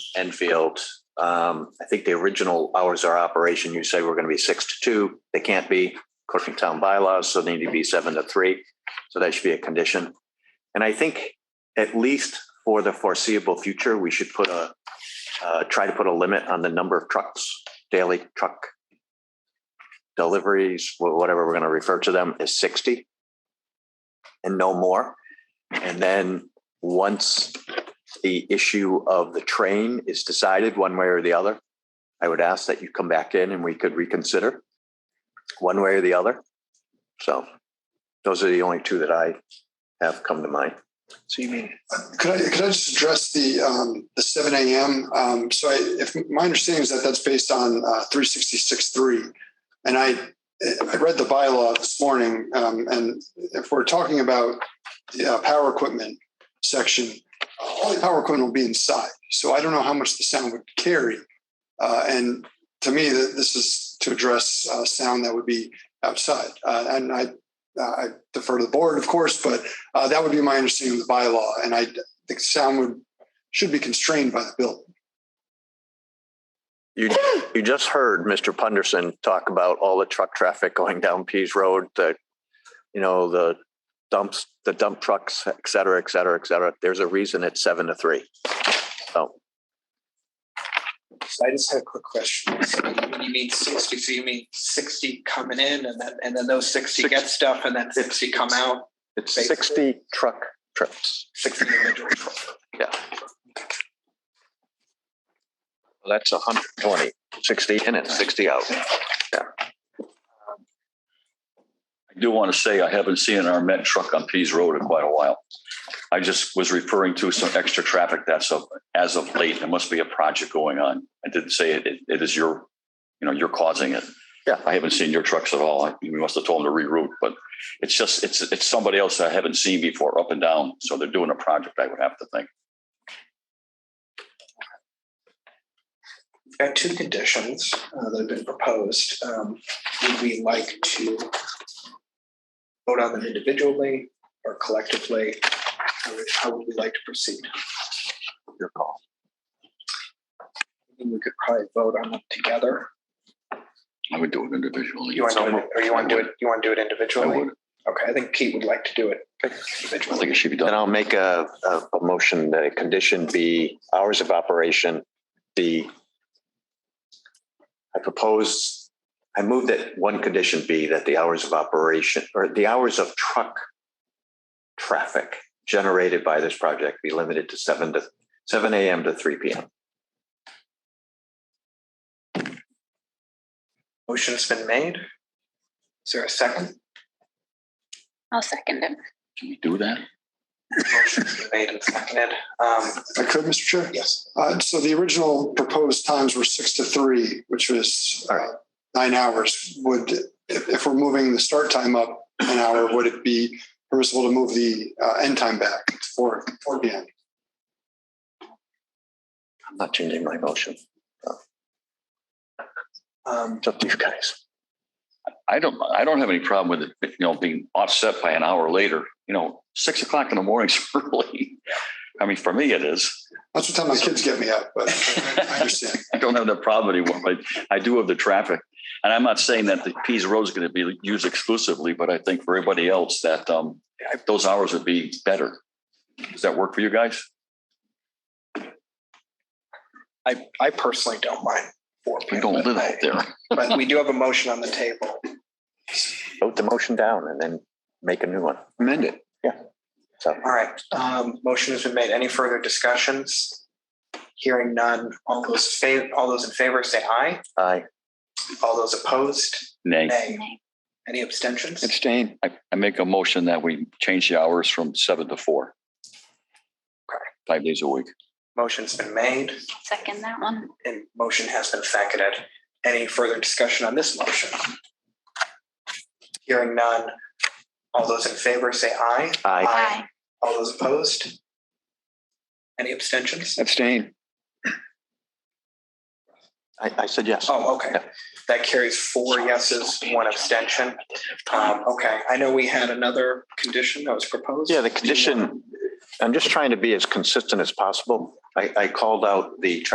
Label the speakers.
Speaker 1: Enfield. Um, I think the original hours of operation, you say we're going to be six to two. They can't be according to town bylaws, so they need to be seven to three. So that should be a condition. And I think at least for the foreseeable future, we should put a, uh, try to put a limit on the number of trucks, daily truck deliveries, wh- whatever we're going to refer to them as 60 and no more. And then once the issue of the train is decided one way or the other, I would ask that you come back in and we could reconsider one way or the other. So those are the only two that I have come to mind.
Speaker 2: So you mean,
Speaker 3: Could I, could I just address the, um, the seven AM? Um, so I, if my understanding is that that's based on, uh, three sixty-six three. And I, I read the bylaw this morning, um, and if we're talking about the uh, power equipment section, all the power equipment will be inside. So I don't know how much the sound would carry. Uh, and to me, th- this is to address, uh, sound that would be outside. Uh, and I, I defer to the board, of course, but uh, that would be my understanding of the bylaw, and I think sound would, should be constrained by the bill.
Speaker 1: You, you just heard Mr. Punderson talk about all the truck traffic going down Pease Road, the, you know, the dumps, the dump trucks, et cetera, et cetera, et cetera. There's a reason it's seven to three.
Speaker 2: so I just had a quick question. So When you mean sixty, so you mean sixty coming in and then, and then those sixty get stuff and then sixty come out?
Speaker 1: It's
Speaker 2: Basically.
Speaker 1: sixty truck trips.
Speaker 2: Sixty individual.
Speaker 1: That's a hundred and twenty, sixty in and sixty out.
Speaker 4: I do want to say I haven't seen our Met truck on Pease Road in quite a while. I just was referring to some extra traffic that's of, as of late, there must be a project going on. I didn't say it, it, it is your, you know, you're causing it.
Speaker 1: Yeah.
Speaker 4: I haven't seen your trucks at all. I- You must have told them to reroute, but it's just, it's, it's somebody else I haven't seen before up and down. So they're doing a project, I would have to think.
Speaker 2: There are two conditions uh, that have been proposed. Um, Would we like to vote on them individually or collectively? How would- How would we like to proceed?
Speaker 1: Your call.
Speaker 2: I think We could probably vote on them together.
Speaker 4: I would do it individually.
Speaker 2: You want to, do it- or you want to do it, you want to do it
Speaker 4: I
Speaker 2: individually?
Speaker 4: would.
Speaker 2: Okay, I think Pete would like to do it
Speaker 4: I
Speaker 2: individually.
Speaker 4: think it should be
Speaker 1: Then
Speaker 4: done.
Speaker 1: I'll make a, a, a motion that a condition be hours of operation be. I propose, I move that one condition be that the hours of operation or the hours of truck traffic generated by this project be limited to seven to, seven AM to three PM.
Speaker 2: Motion's been made. Is there a second?
Speaker 5: I'll second it.
Speaker 4: Can we do that?
Speaker 2: Motion's been made and seconded. Um,
Speaker 3: If I could, Mr. Chair?
Speaker 2: Yes.
Speaker 3: Uh, so the original proposed times were six to three, which was uh, nine hours. Would, if, if we're moving the start time up an hour, would it be permissible to move the uh, end time back to four, four P M?
Speaker 1: I'm not changing my motion.
Speaker 2: um,
Speaker 1: It's up to you guys.
Speaker 4: I don't, I don't have any problem with it, you know, being offset by an hour later, you know, six o'clock in the morning's early. I mean, for me, it is.
Speaker 3: That's what time my kids get me up, but I understand.
Speaker 4: I don't have that problem anymore, but I do have the traffic. And I'm not saying that the Pease Road is going to be used exclusively, but I think for everybody else that, um, those hours would be better. Does that work for you guys?
Speaker 2: I, I personally don't mind four
Speaker 4: We
Speaker 2: people.
Speaker 4: don't live out there.
Speaker 2: But we do have a motion on the table.
Speaker 1: Vote the motion down and then make a new one. Amend it. Yeah. So.
Speaker 2: All right, um, motion has been made. Any further discussions? Hearing none, all those fa, all those in favor say aye.
Speaker 1: Aye.
Speaker 2: All those opposed,
Speaker 4: Nay,
Speaker 2: nay. Any abstentions?
Speaker 1: Abstain.
Speaker 4: I, I make a motion that we change the hours from seven to four.
Speaker 2: Okay.
Speaker 4: Five days a week.
Speaker 2: Motion's been made
Speaker 5: Second that one.
Speaker 2: and motion has been seconded. Any further discussion on this motion? Hearing none, all those in favor say aye.
Speaker 1: Aye.
Speaker 2: Aye. All those opposed? Any abstentions?
Speaker 1: Abstain. I, I said yes.
Speaker 2: Oh, okay. That carries four yeses, one abstention. Um, okay, I know we had another condition that was proposed.
Speaker 1: Yeah, the condition, I'm just trying to be as consistent as possible. I, I called out the